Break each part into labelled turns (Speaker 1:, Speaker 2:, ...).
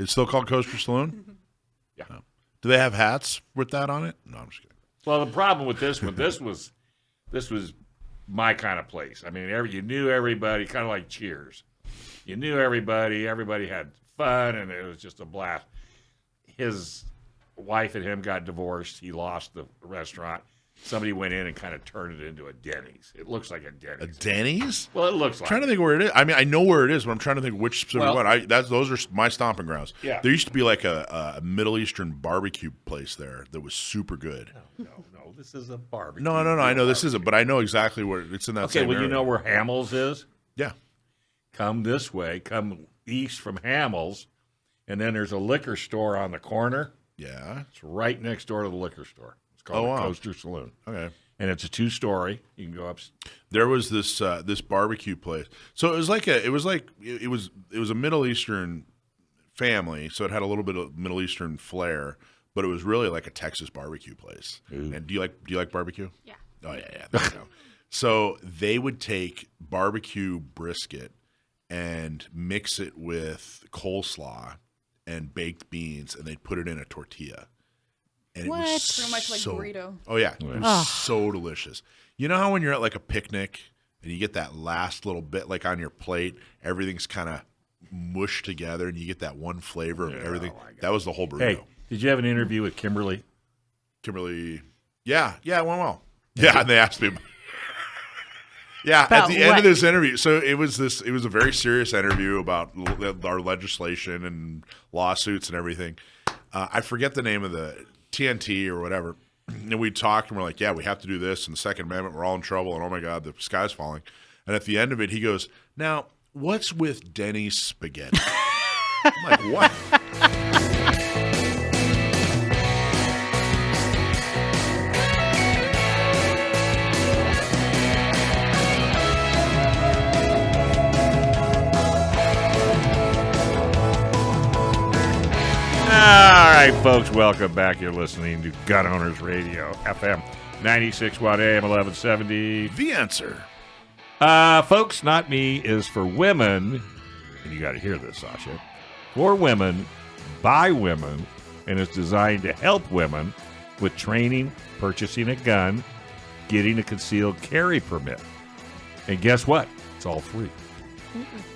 Speaker 1: It's still called Coaster Saloon?
Speaker 2: Yeah.
Speaker 1: No. Do they have hats with that on it? No, I'm just kidding.
Speaker 2: Well, the problem with this one, this was, this was my kind of place. I mean, every you knew everybody, kind of like Cheers. You knew everybody. Everybody had fun, and it was just a blast. His wife and him got divorced. He lost the restaurant. Somebody went in and kind of turned it into a Denny's. It looks like a
Speaker 1: A
Speaker 2: Denny's.
Speaker 1: Denny's?
Speaker 2: well, it looks like.
Speaker 1: trying to think where it is. I mean, I know where it is, but I'm trying to think which specific
Speaker 2: Well-
Speaker 1: one. I that's those are my stomping grounds.
Speaker 2: Yeah.
Speaker 1: There used to be like a, a Middle Eastern barbecue place there that was super good.
Speaker 2: no, no, this is a Oh, barbecue.
Speaker 1: No, no, no. I know this isn't, but I know exactly where it's in that.
Speaker 2: Okay,
Speaker 1: same
Speaker 2: well, you
Speaker 1: area.
Speaker 2: know where Hamels is.
Speaker 1: Yeah.
Speaker 2: come this way, come east from Hamels, and then there's a liquor store on the corner.
Speaker 1: Yeah.
Speaker 2: It's right next door to the liquor store. It's called
Speaker 1: Oh,
Speaker 2: the
Speaker 1: wow.
Speaker 2: Coaster Saloon,
Speaker 1: Okay.
Speaker 2: and it's a two story. You can go up.
Speaker 1: There was this uh, this barbecue place. So it was like a it was like it it was it was a Middle Eastern family, so it had a little bit of Middle Eastern flair, but it was really like a Texas barbecue place. And do you like do you like barbecue?
Speaker 3: Yeah.
Speaker 1: Oh yeah, yeah. There you go. So they would take barbecue brisket and mix it with coleslaw and baked beans, and they'd put it in a tortilla. And it
Speaker 3: What?
Speaker 1: was
Speaker 3: Pretty much like
Speaker 1: so-
Speaker 3: burrito.
Speaker 1: Oh yeah, it was so delicious. You know how when you're at like a picnic and you get that last little bit like on your plate, everything's kind of mushed together, and you get that one flavor of everything. That was the whole burrito.
Speaker 2: Hey, did you have an interview with Kimberly?
Speaker 1: Kimberly. Yeah, yeah, it went well. Yeah, and they asked me. Yeah, at
Speaker 4: About
Speaker 1: the end of
Speaker 4: what?
Speaker 1: this interview, so it was this. It was a very serious interview about l- our legislation and lawsuits and everything. Uh, I forget the name of the TNT or whatever. And we talked, and we're like, "Yeah, we have to do this." And the Second Amendment, we're all in trouble. And oh my God, the sky's falling. And at the end of it, he goes, "Now, what's with Denny's spaghetti?" I'm like, "What?"
Speaker 2: All right, folks, welcome back. You're listening to Gun Owners Radio FM, 96 watt AM, 1170.
Speaker 1: the answer.
Speaker 2: Uh, folks, not me is for women, and you got to hear this, Sasha. For women, by women, and it's designed to help women with training, purchasing a gun, getting a concealed carry permit. And guess what? It's all free.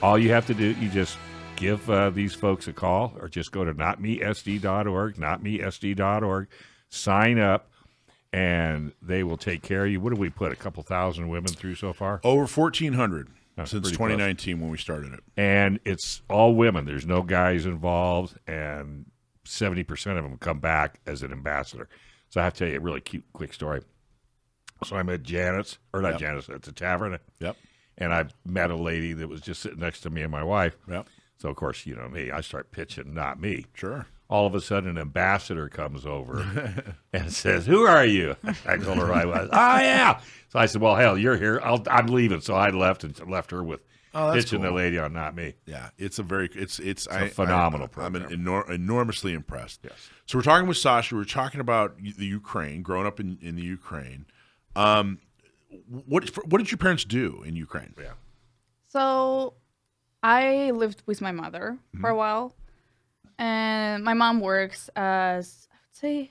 Speaker 2: All you have to do, you just give uh, these folks a call or just go to notmesd.org, notmesd.org, sign up, and they will take care of you. What have we put a couple thousand women through so far?
Speaker 1: Over 1,400
Speaker 2: That's
Speaker 1: since
Speaker 2: pretty
Speaker 1: 2019 when we started it.
Speaker 2: and it's all women. There's no guys involved, and seventy percent of them come back as an ambassador. So I have to tell you a really cute, quick story. So I'm at Janet's, or not Janet's, it's a tavern,
Speaker 1: Yep.
Speaker 2: and I met a lady that was just sitting next to me and my wife.
Speaker 1: Yep.
Speaker 2: So of course, you know me, I start pitching, not me.
Speaker 1: Sure.
Speaker 2: All of a sudden, an ambassador comes over and says, "Who are you?" I told her I was. Oh yeah. So I said, "Well, hell, you're here. I'll, I'm leaving." So I left and left her with
Speaker 1: Oh, that's
Speaker 2: pitching the
Speaker 1: cool.
Speaker 2: lady on not me.
Speaker 1: Yeah, it's a very it's it's,
Speaker 2: a phenomenal
Speaker 1: I, I'm
Speaker 2: program.
Speaker 1: enor- enormously impressed.
Speaker 2: Yes.
Speaker 1: So we're talking with Sasha. We're talking about y- the Ukraine, growing up in, in the Ukraine. Um, what what did your parents do in Ukraine? Yeah.
Speaker 3: So I lived with my mother for a
Speaker 1: Mm-hmm.
Speaker 3: while, and my mom works as I would say,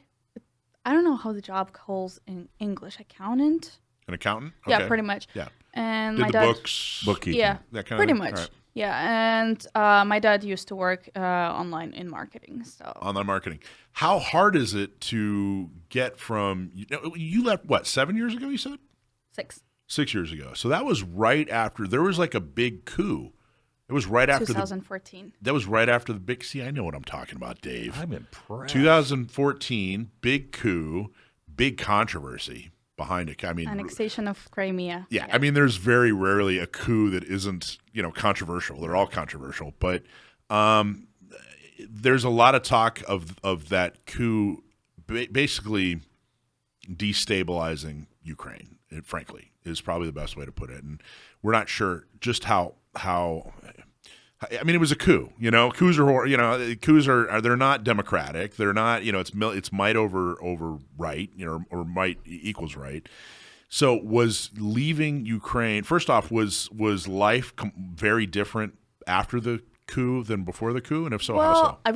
Speaker 3: I don't know how the job calls in English, accountant.
Speaker 1: An accountant.
Speaker 3: Yeah, pretty much.
Speaker 1: Yeah.
Speaker 3: And
Speaker 1: Did
Speaker 3: my
Speaker 1: the
Speaker 3: dad.
Speaker 1: books.
Speaker 2: Bookkeeping.
Speaker 3: Yeah,
Speaker 1: that kinda
Speaker 3: pretty
Speaker 1: thing?
Speaker 3: much.
Speaker 1: Alright.
Speaker 3: Yeah, and uh, my dad used to work uh, online in marketing, so
Speaker 1: Online marketing. How hard is it to get from you, know, you left what seven years ago? You said
Speaker 3: six.
Speaker 1: six years ago. So that was right after there was like a big coup. It was right after the
Speaker 3: 2014.
Speaker 1: That was right after the big. See, I know what I'm talking about, Dave.
Speaker 2: I'm impressed.
Speaker 1: 2014, big coup, big controversy behind it. I mean,
Speaker 3: Annexation of Crimea.
Speaker 1: yeah, I mean, there's very rarely a coup that isn't you know controversial. They're all controversial, but um, there's a lot of talk of of that coup ba- basically destabilizing Ukraine. It, frankly, is probably the best way to put it, and we're not sure just how how. I mean, it was a coup. You know, coups are hor- you know coups are, are they're not democratic. They're not you know it's mil- it's might over over right you know or might e, equals right. So was leaving Ukraine first off was was life com- very different after the coup than before the coup, and if so, how so?
Speaker 3: well, I